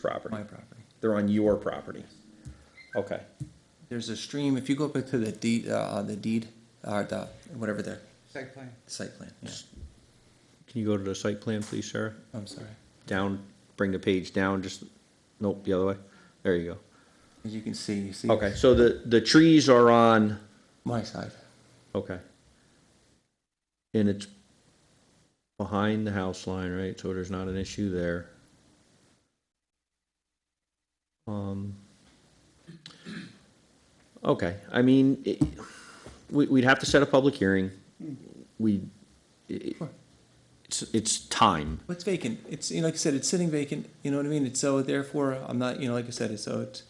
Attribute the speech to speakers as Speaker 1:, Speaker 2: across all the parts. Speaker 1: property.
Speaker 2: my property.
Speaker 1: They're on your property. Okay.
Speaker 2: There's a stream, if you go up to the deed, uh, the deed, or the, whatever the
Speaker 3: Site plan.
Speaker 2: site plan, yeah,
Speaker 1: Can you go to the site plan, please, Sarah?
Speaker 2: I'm sorry.
Speaker 1: Down, bring the page down, just, nope, the other way. There you
Speaker 2: As you can see, you see.
Speaker 1: go. Okay, so the, the trees are on,
Speaker 2: My side,
Speaker 1: okay. And it's behind the house line, right? So there's not an issue there. Um, okay, I mean, it, we, we'd have to set a public hearing. We, it,
Speaker 2: Sure.
Speaker 1: it's, it's time.
Speaker 2: But it's vacant, it's, you know, like I said, it's sitting vacant, you know what I mean, it's, so therefore, I'm not, you know, like I said, it's, so it's,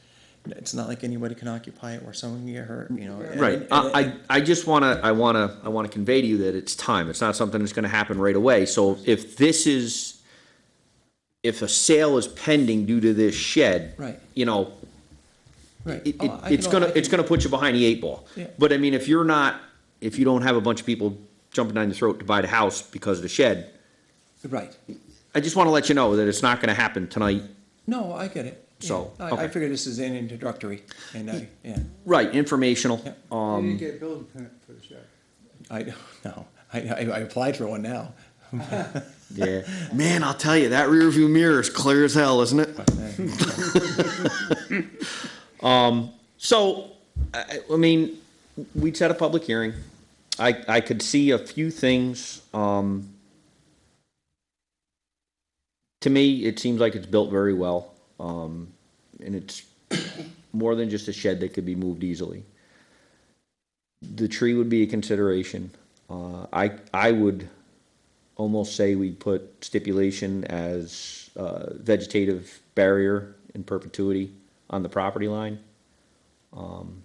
Speaker 2: it's not like anybody can occupy it or someone can get hurt, you know. and-
Speaker 1: Right,
Speaker 2: and-
Speaker 1: I, I, I just wanna, I wanna, I wanna convey to you that it's time, it's not something that's gonna happen right away, so if this is, if a sale is pending due to this shed.
Speaker 2: Right.
Speaker 1: You know,
Speaker 2: Right.
Speaker 1: it,
Speaker 2: Oh,
Speaker 1: it,
Speaker 2: I can
Speaker 1: it's
Speaker 2: al-
Speaker 1: gonna,
Speaker 2: I
Speaker 1: it's
Speaker 2: can-
Speaker 1: gonna put you behind the eight ball.
Speaker 2: Yeah.
Speaker 1: But I mean, if you're not, if you don't have a bunch of people jumping down your throat to buy the house because of the shed,
Speaker 2: Right,
Speaker 1: I just wanna let you know that it's not gonna happen tonight.
Speaker 2: no, I get it. Yeah.
Speaker 1: So,
Speaker 2: I,
Speaker 1: okay.
Speaker 2: I figure this is an introductory, and I, yeah,
Speaker 1: Right, informational,
Speaker 2: Yeah.
Speaker 3: You didn't
Speaker 1: um,
Speaker 3: get a building permit for the shed.
Speaker 2: I don't know, I, I, I applied for one now.
Speaker 1: yeah. Man, I'll tell you, that rear view mirror is clear as hell, isn't it? Um, So, I, I mean, we'd set a public hearing. I, I could see a few things, um, to me, it seems like it's built very well, um, and it's more than just a shed that could be moved easily. The tree would be a consideration. Uh, I, I would almost say we put stipulation as, uh, vegetative barrier in perpetuity on the property line Um,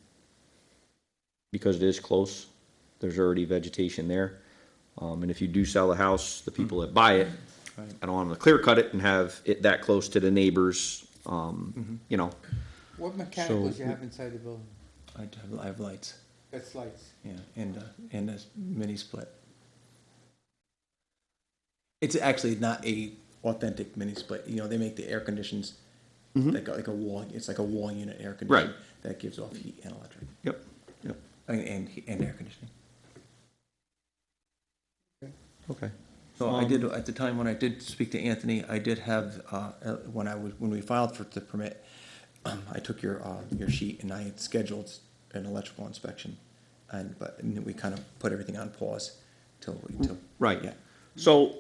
Speaker 1: because it is close, there's already vegetation there. Um, and if you do sell the house, the people that buy it, I don't want them to clear cut it and have it that close to the neighbors, um, you know.
Speaker 3: What mechanicals
Speaker 1: So-
Speaker 3: you have inside the building?
Speaker 2: I have, I have lights,
Speaker 3: That's lights.
Speaker 2: yeah, and, uh, and a mini split. It's actually not a authentic mini split, you know, they make the air conditions that go like a wall, it's like a wall unit air conditioner that gives off heat and electric,
Speaker 1: Yep, yep,
Speaker 2: and, and, and air conditioning.
Speaker 1: okay.
Speaker 2: So I did, at the time when I did speak to Anthony, I did have, uh, uh, when I was, when we filed for the permit, um, I took your, uh, your sheet and I had scheduled an electrical inspection. And, but, and we kind of put everything on pause till, we- till.
Speaker 1: Right.
Speaker 2: Yeah.
Speaker 1: So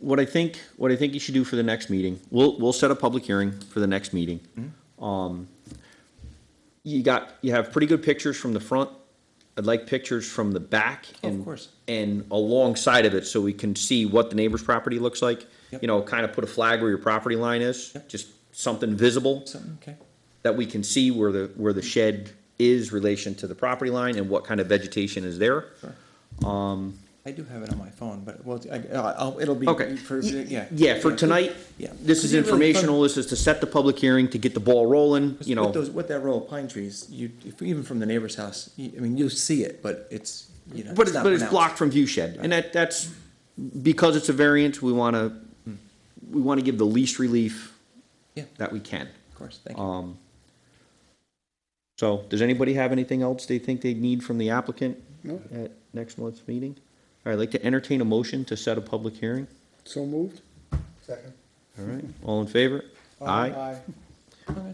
Speaker 1: what I think, what I think you should do for the next meeting, we'll, we'll set a public hearing for the next meeting.
Speaker 2: Mm-hmm.
Speaker 1: Um, you got, you have pretty good pictures from the front. I'd like pictures from the back.
Speaker 2: Of
Speaker 1: and-
Speaker 2: course.
Speaker 1: And alongside of it, so we can see what the neighbor's property looks like.
Speaker 2: Yep.
Speaker 1: You know, kind of put a flag where your property line is,
Speaker 2: Yep.
Speaker 1: just something visible
Speaker 2: Something, okay.
Speaker 1: that we can see where the, where the shed is relation to the property line and what kind of vegetation is there.
Speaker 2: Sure. I do have it on my phone, but, well, I, I'll, it'll be.
Speaker 1: Um, Okay.
Speaker 2: for- Yeah.
Speaker 1: Yeah, for tonight,
Speaker 2: Yeah.
Speaker 1: this is
Speaker 2: Could you really fund-
Speaker 1: informational, this is to set the public hearing, to get the ball rolling, you
Speaker 2: With
Speaker 1: know.
Speaker 2: those, with that row of pine trees, you, if, even from the neighbor's house, you, I mean, you'll see it, but it's, you know.
Speaker 1: But it's,
Speaker 2: not
Speaker 1: but it's
Speaker 2: pronounced.
Speaker 1: blocked from view shed, and that, that's, because it's a variance, we wanna, we wanna give the least relief
Speaker 2: Yeah.
Speaker 1: that we can.
Speaker 2: Of course, thank you.
Speaker 1: Um, so, does anybody have anything else they think they need from the applicant? At next month's meeting? All right, I'd like to entertain a motion to set a public hearing,
Speaker 4: So moved?
Speaker 3: Second.
Speaker 1: all right, all in favor?
Speaker 2: Uh,
Speaker 1: Aye,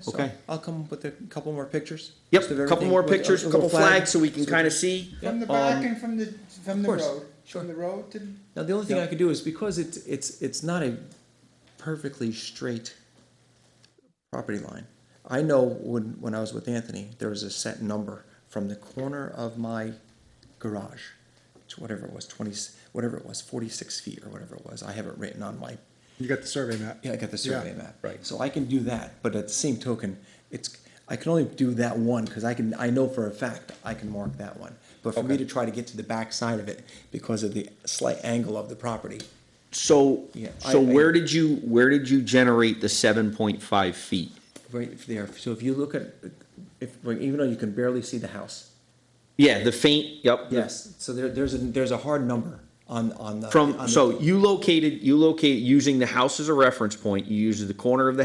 Speaker 2: so
Speaker 1: Okay.
Speaker 2: I'll come up with a couple more pictures.
Speaker 1: yep,
Speaker 2: just of
Speaker 1: couple
Speaker 2: everything,
Speaker 1: more
Speaker 2: with a-
Speaker 1: pictures,
Speaker 2: a little
Speaker 1: couple
Speaker 2: flag,
Speaker 1: flags, so we can
Speaker 2: so-
Speaker 1: kinda see.
Speaker 3: From the back
Speaker 1: Um,
Speaker 3: and from the, from the
Speaker 2: course,
Speaker 3: road,
Speaker 2: sure.
Speaker 3: from the road to, the-
Speaker 2: Now, the only thing
Speaker 3: Yeah.
Speaker 2: I could do is because it's, it's, it's not a perfectly straight property line. I know when, when I was with Anthony, there was a set number from the corner of my garage to whatever it was, twenty, whatever it was, forty-six feet or whatever it was. I have it written on my
Speaker 4: You got the survey map?
Speaker 2: Yeah, I got the survey
Speaker 4: Yeah,
Speaker 2: map.
Speaker 1: right.
Speaker 2: So I can do that, but at the same token, it's I can only do that one because I can I know for a fact I can mark that one. But for me to try to get to the back side of it because of the slight angle of the property,
Speaker 1: So,
Speaker 2: Yeah,
Speaker 1: so
Speaker 2: I- I-
Speaker 1: where did you, where did you generate the seven point five feet?
Speaker 2: right there. So if you look at if even though you can barely see the house,
Speaker 1: Yeah, the faint, yep.
Speaker 2: yes. So there, there's a there's a hard number on, on the. on
Speaker 1: From,
Speaker 2: the-
Speaker 1: so you located, you locate, using the house as a reference point, you use the corner of the